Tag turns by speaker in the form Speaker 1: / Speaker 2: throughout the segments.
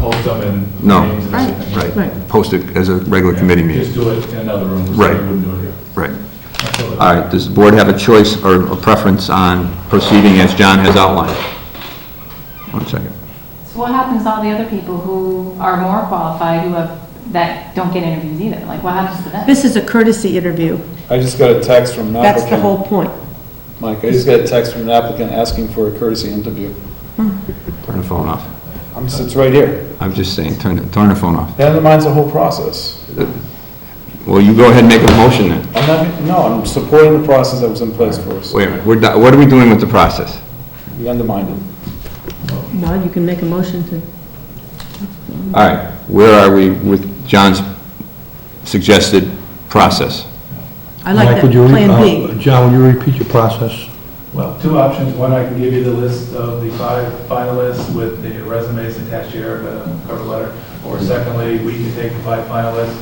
Speaker 1: post them and
Speaker 2: No.
Speaker 1: names and everything.
Speaker 2: Right,
Speaker 3: Right.
Speaker 2: post it as a regular committee
Speaker 1: Just
Speaker 2: meeting,
Speaker 1: do it in another room, so
Speaker 2: Right.
Speaker 1: we wouldn't do it here.
Speaker 2: right.
Speaker 1: Absolutely.
Speaker 2: All right, does the board have a choice or a preference on proceeding as John has outlined? One second.
Speaker 4: So what happens to all the other people who are more qualified, who have, that don't get interviews either? Like, what happens to them?
Speaker 3: This is a courtesy interview.
Speaker 5: I just got a text from an
Speaker 2: Ah,
Speaker 3: That's the
Speaker 5: applicant,
Speaker 3: whole point.
Speaker 5: Mike, I just got a text from an applicant asking for a courtesy interview.
Speaker 2: Turn the phone off.
Speaker 5: I'm, just- it's right here.
Speaker 2: I'm just saying, turn, the- turn the phone off.
Speaker 5: That undermines the whole process.
Speaker 2: Well, you go ahead and make a motion then.
Speaker 5: I'm not, no, I'm supporting the process that was in place for us.
Speaker 2: Wait a minute, we're, do- what are we doing with the process?
Speaker 5: We undermined it.
Speaker 3: Well, you can make a motion to,
Speaker 2: All right, where are we with John's suggested process?
Speaker 3: I like
Speaker 6: Mike,
Speaker 3: that,
Speaker 6: would you re-
Speaker 3: Plan
Speaker 6: uh,
Speaker 3: B.
Speaker 6: John, will you repeat your process?
Speaker 1: Well, two options. One, I can give you the list of the five finalists with the resumes attached here, the cover letter. Or secondly, we can take the five finalists,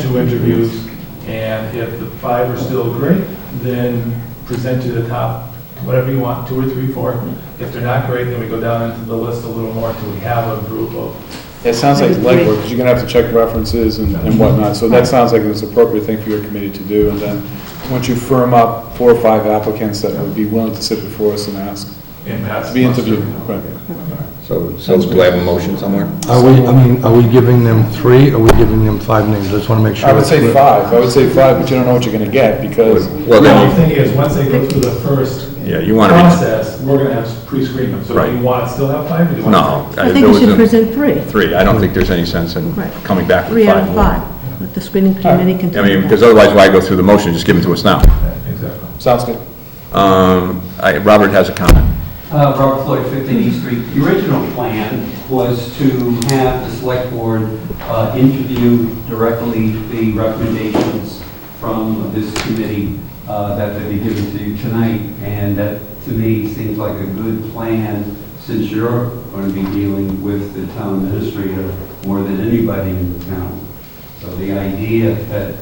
Speaker 1: two interviews, and if the five are still great, then present to the top, whatever you want, two or three, four. If they're not great, then we go down into the list a little more until we have a group of,
Speaker 5: It sounds like legwork, because you're gonna have to check references and and whatnot, so that sounds like it's an appropriate thing for your committee to do, and then, once you firm up four or five applicants that would be willing to sit before us and ask,
Speaker 1: and
Speaker 5: to
Speaker 1: that's.
Speaker 5: be interviewed. Right.
Speaker 7: So, so do I have a motion somewhere?
Speaker 6: Are we, I mean, are we giving them three, are we giving them five names? I just want to make sure.
Speaker 5: I would say
Speaker 6: it's clear.
Speaker 5: five, I would say five, but you don't know what you're gonna get, because
Speaker 2: Well,
Speaker 1: The
Speaker 2: then,
Speaker 1: only thing is, once they go through the first
Speaker 2: Yeah, you wanna re-
Speaker 1: process, we're going to have pre-screen them. So do you
Speaker 2: Right.
Speaker 1: want, still have five, or do you
Speaker 2: you-
Speaker 1: want?
Speaker 2: no.
Speaker 3: I think
Speaker 2: there
Speaker 3: you should
Speaker 2: was a-
Speaker 3: present three,
Speaker 2: Three, I don't think there's any sense in
Speaker 3: Right.
Speaker 2: coming back with
Speaker 3: three out
Speaker 2: five
Speaker 3: of
Speaker 2: more.
Speaker 3: five. Let the screening committee
Speaker 2: I
Speaker 3: continue
Speaker 2: mean,
Speaker 3: that.
Speaker 2: because otherwise why go through the motion, just give it to us now.
Speaker 1: three? Exactly.
Speaker 5: sounds good.
Speaker 2: Um, I, Robert has a comment.
Speaker 8: Uh, Robert Floyd, 15 East Street. The original plan was to have the select board uh, interview directly the recommendations from this committee uh, that they be given to you tonight, and that, to me, seems like a good plan, since you're going to be dealing with the town administrator more than anybody in the town. So the idea that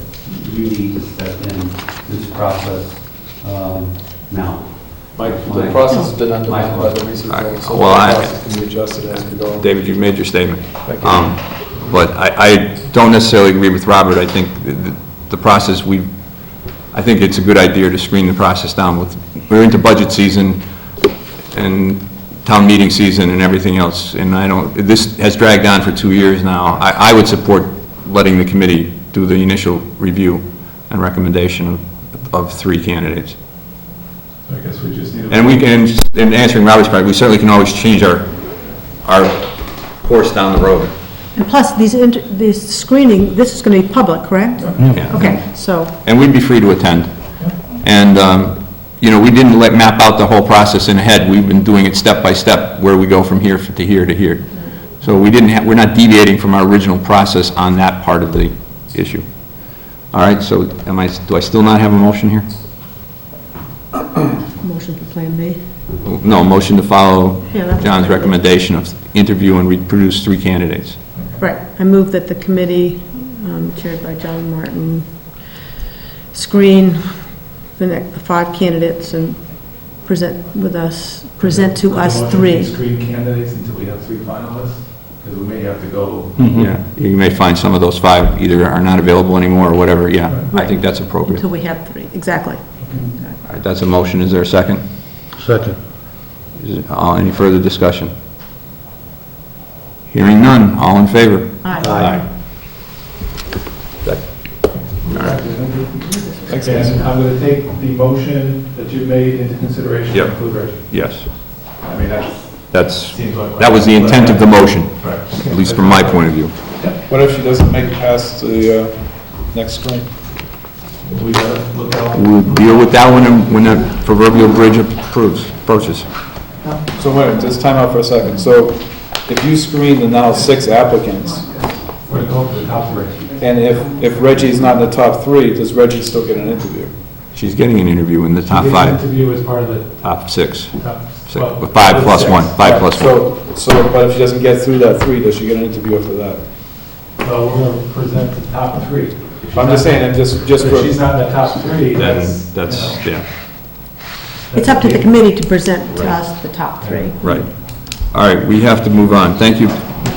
Speaker 8: you need to step in this process um, now.
Speaker 5: Mike,
Speaker 8: That's
Speaker 5: the
Speaker 8: my-
Speaker 5: process has been undermined by the recent
Speaker 2: Mike.
Speaker 5: things, so the
Speaker 2: Well, I-
Speaker 5: process can be adjusted as we go.
Speaker 2: David, you've made your statement.
Speaker 5: Thank you.
Speaker 2: Um, But I, I don't necessarily agree with Robert. I think the- the- the process, we, I think it's a good idea to screen the process down with, we're into budget season and town meeting season and everything else, and I don't, this has dragged on for two years now. I, I would support letting the committee do the initial review and recommendation of, of three candidates.
Speaker 1: So I guess we just need. a-
Speaker 2: And we can, in answering Robert's part, we certainly can always change our, our course down the road.
Speaker 3: And plus, these, inter- this screening, this is going to be public, correct?
Speaker 2: Yeah.
Speaker 3: Okay, so,
Speaker 2: and we'd be free to attend. And, um, you know, we didn't let, map out the whole process in ahead, we've been doing it step by step, where we go from here f- to here to here. So we didn't have, we're not deviating from our original process on that part of the issue. All right, so am I, do I still not have a motion here?
Speaker 3: motion for Plan B.
Speaker 2: No, motion to follow
Speaker 3: Yeah, that's-
Speaker 2: John's recommendation of interview and reproduce three candidates.
Speaker 3: Right, I move that the committee um, chaired by John Martin screen the next, the five candidates and present with us, present to us
Speaker 1: Motion
Speaker 3: three.
Speaker 1: to Screen candidates until we have three finalists, because we may have to go.
Speaker 2: Yeah, you may find some of those five either are not available anymore or whatever, yeah, I
Speaker 3: Right.
Speaker 2: think that's appropriate.
Speaker 3: Until we have three, exactly.
Speaker 2: All right, that's a motion, is there a second?
Speaker 6: Second.
Speaker 2: Is it- all- Any further discussion? Hearing none, all in favor?
Speaker 3: Aye.
Speaker 2: That- All right.
Speaker 1: And I'm going to take the motion that you made into consideration.
Speaker 2: Yep.
Speaker 1: Include Reggie.
Speaker 2: Yes,
Speaker 1: I mean, that
Speaker 2: that's,
Speaker 1: seems like.
Speaker 2: that was the intent of the motion,
Speaker 1: Right.
Speaker 2: at least from my point of view.
Speaker 5: What if she doesn't make it past the uh, next screen?
Speaker 1: We got to look out.
Speaker 2: We'll deal with that one and when that proverbial bridge approves, approaches.
Speaker 5: So wait, just time out for a second. So if you screen the now six applicants,
Speaker 1: We're going to go to the top three.
Speaker 5: and if, if Reggie's not in the top three, does Reggie still get an interview?
Speaker 2: She's getting an interview in the top
Speaker 1: This
Speaker 2: five,
Speaker 1: Interview is part of the
Speaker 2: top six,
Speaker 1: top.
Speaker 2: six,
Speaker 1: well,
Speaker 2: five plus
Speaker 1: six.
Speaker 2: one, five plus one.
Speaker 5: So, so, but if she doesn't get through that three, does she get an interview after that?
Speaker 1: So we're going to present the top three. If she's
Speaker 5: I'm just
Speaker 1: not-
Speaker 5: saying, I'm just, just
Speaker 1: If she's
Speaker 5: for,
Speaker 1: not in the top three, that's.
Speaker 2: Then That's, yeah,
Speaker 3: It's up to the committee to present to us the top three.
Speaker 2: right. All right, we have to move on. Thank you,